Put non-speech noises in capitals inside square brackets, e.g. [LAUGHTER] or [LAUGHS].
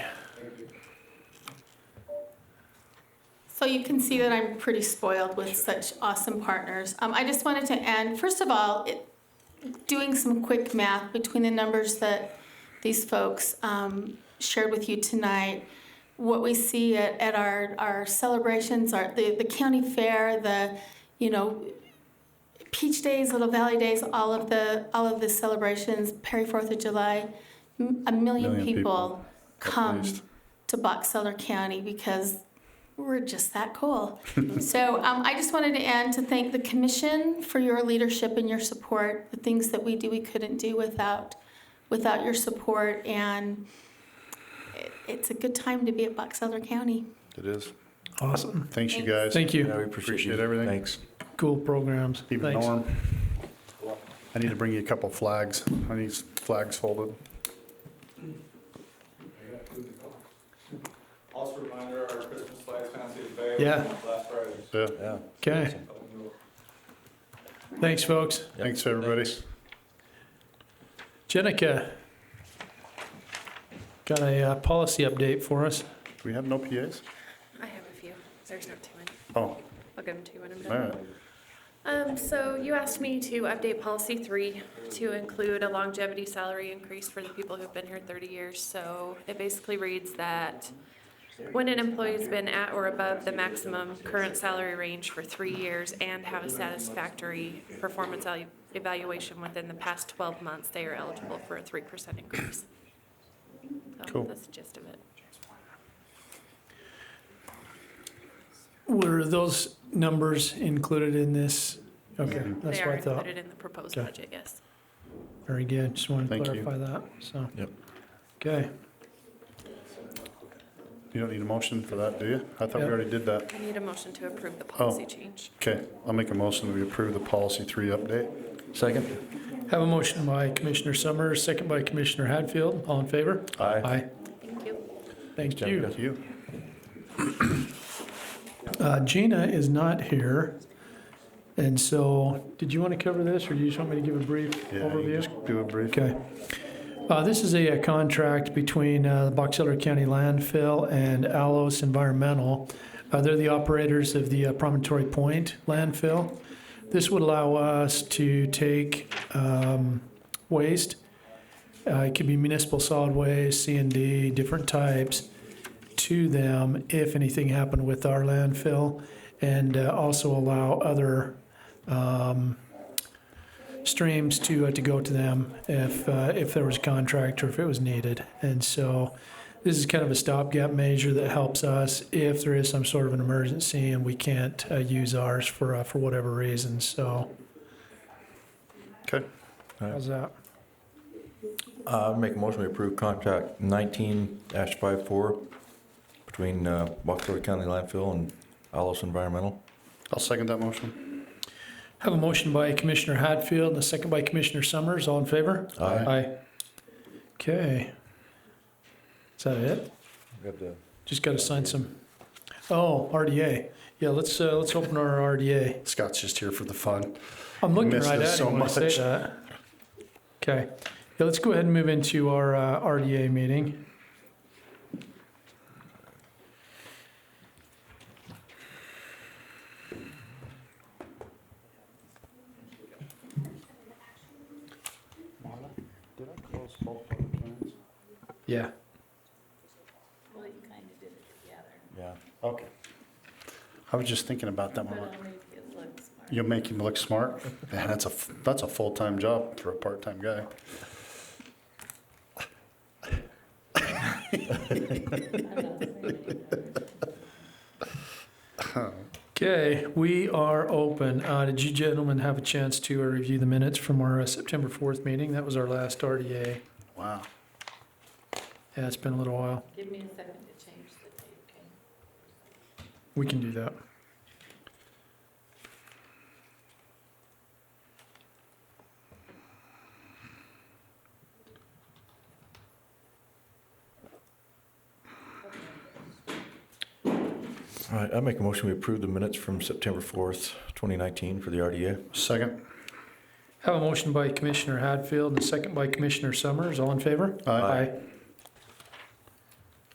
So you can see that I'm pretty spoiled with such awesome partners. Um, I just wanted to end, first of all, it, doing some quick math between the numbers that these folks um, shared with you tonight, what we see at, at our, our celebrations, our, the, the county fair, the, you know, Peach Days, Little Valley Days, all of the, all of the celebrations, Perry Fourth of July, m- a million Million people people, come least. to Box Elder County because we're just that cool. [LAUGHS] so um, I just wanted to end to thank the commission for your leadership and your support. The things that we do, we couldn't do without without your support, and it, it's a good time to be at Box Elder County. It is. Awesome. Thanks, you Thanks. guys. Thank you. Yeah, we appreciate you. Appreciate everything. Thanks. Cool programs. Keep it Thanks. Norm. I need to bring you a couple flags. I need s- flags folded. Also a reminder, our Christmas flags kind of see the bay Yeah. last Friday. Yeah. Yeah. Okay. Thanks, folks. Thanks, everybody. Jenica, got a uh, policy update for us. Do we have no PAs? I have a few. There's not too many. Oh, I'll give them to you when I'm all done. right. Um, so you asked me to update policy three to include a longevity salary increase for the people who've been here thirty years. So it basically reads that when an employee's been at or above the maximum current salary range for three years and have a satisfactory performance evalu- evaluation within the past twelve months, they are eligible for a three percent increase. So Cool. that's the gist of it. Were those numbers included in this? Okay, that's Mm-hmm. They what are I thought. included in the proposed Okay. budget, yes. Very good. Just want to Thank you. clarify that, so. Yep. Okay. You don't need a motion for that, do you? I thought we Yeah. already did that. I need a motion to approve the Oh. policy change. Okay, I'll make a motion that we approve the policy three update. Second? Have a motion by Commissioner Summers, second by Commissioner Hadfield. All in favor? Aye. Aye. Thank you. Thank you. Jenica. Thank you. Uh, Gina is not here. And so, did you want to cover this or do you just want me to give a brief Yeah, you overview? just do a brief. Okay. Uh, This is a uh, contract between uh, the Box Elder County Landfill and Allos Environmental. Uh, They're the operators of the uh, Promontory Point landfill. This would allow us to take um, waste, uh, it could be municipal solid waste, C and D, different types, to them if anything happened with our landfill, and uh, also allow other um, streams to uh, to go to them if uh, if there was a contract or if it was needed. And so, this is kind of a stopgap measure that helps us if there is some sort of an emergency and we can't uh, use ours for uh, for whatever reason. So, Okay, how's that? Uh, make a motion to approve contract nineteen dash five four between, uh, Wachusett County Landfill and Alice Environmental. I'll second that motion. Have a motion by Commissioner Hatfield and a second by Commissioner Summers. All in favor? Aye. Aye. Okay. Is that it? Just got to sign some. Oh, RDA. Yeah, let's uh, let's open our RDA. Scott's just here for the fun. I'm looking Missed right this at so it when I say much. that. Okay, yeah, let's go ahead and move into our uh, RDA meeting. Did I close both public hearings? Yeah. Well, you kind of did it together, Yeah. Okay. I was just thinking about that but one. I'll make it look smart. You'll make him look smart. [LAUGHS] Man, that's a f- that's a full time job for a part time guy. I'm not saying it. Okay, we are open. Uh, did you gentlemen have a chance to uh, review the minutes from our uh, September 4th meeting? That was our last RDA. Wow. Yeah, it's been a little while. Give me a second to change the date, okay? We can do that. All right, I make a motion we approve the minutes from September fourth, twenty nineteen for the RDA. Second. Have a motion by Commissioner Hadfield and a second by Commissioner Summers. All in favor? Aye. Aye.